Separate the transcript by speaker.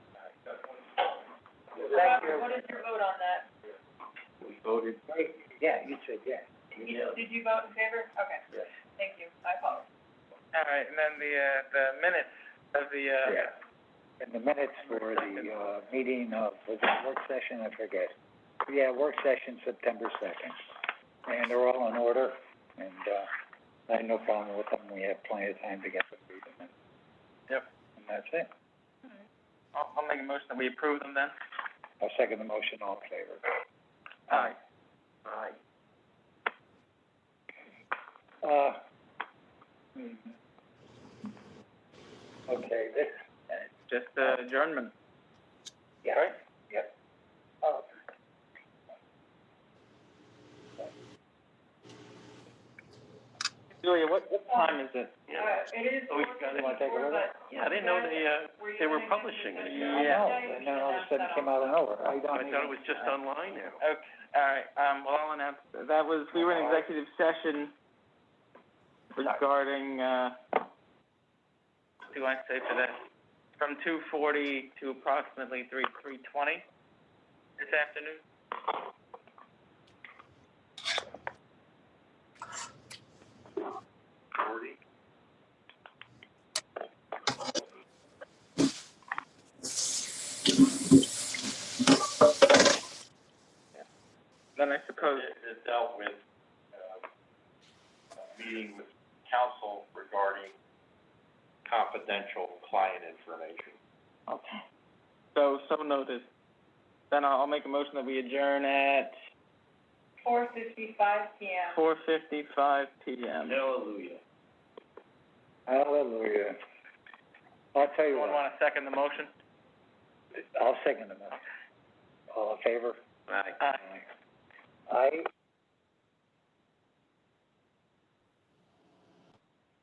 Speaker 1: What is your vote on that?
Speaker 2: We voted.
Speaker 3: Yeah, you said, yeah.
Speaker 1: You- Did you vote in favor? Okay.
Speaker 2: Yes.
Speaker 1: Thank you, I apologize.
Speaker 4: All right, and then the, uh, the minutes of the, uh,
Speaker 2: Yeah.
Speaker 3: In the minutes for the, uh, meeting of, was it work session, I forget. Yeah, work session, September second. And they're all in order, and, uh, I had no problem with them, we had plenty of time to get them through them.
Speaker 4: Yep.
Speaker 3: And that's it.
Speaker 4: I'll, I'll make a motion that we approve them then.
Speaker 3: I'll second the motion, all in favor.
Speaker 4: Aye.
Speaker 2: Aye.
Speaker 3: Uh, hmm. Okay, this,
Speaker 4: Just, uh, adjournment.
Speaker 3: yeah.
Speaker 4: Right?
Speaker 3: Yep. Oh.
Speaker 4: Julia, what, what time is it?
Speaker 1: Uh, it is
Speaker 4: Oh, we
Speaker 1: four
Speaker 4: got it.
Speaker 1: fifty-four, but.
Speaker 5: Yeah, I didn't know they, uh,
Speaker 1: Were you
Speaker 5: they were
Speaker 1: gonna do
Speaker 5: publishing
Speaker 1: this
Speaker 5: it.
Speaker 1: on
Speaker 3: I know,
Speaker 1: Monday?
Speaker 3: and then all of a sudden it came out of nowhere, I don't
Speaker 5: I
Speaker 3: even.
Speaker 5: thought it was just online now.
Speaker 4: Okay, all right, um, well, I'll announce, that was, we were in executive session regarding, uh, what do I say for that? From two forty to approximately three, three twenty this afternoon. Then I suppose,
Speaker 2: It, it dealt with, um, a meeting with council regarding confidential client information.
Speaker 3: Okay.
Speaker 4: so, so noted. Then I'll, I'll make a motion that we adjourn at
Speaker 1: Four fifty-five PM.
Speaker 4: four fifty-five PM.
Speaker 2: Hallelujah.
Speaker 3: Hallelujah. I'll tell you
Speaker 4: Anyone
Speaker 3: what,
Speaker 4: wanna second the motion?
Speaker 3: I'll second the motion. All in favor?
Speaker 5: Aye.
Speaker 4: Aye.
Speaker 3: I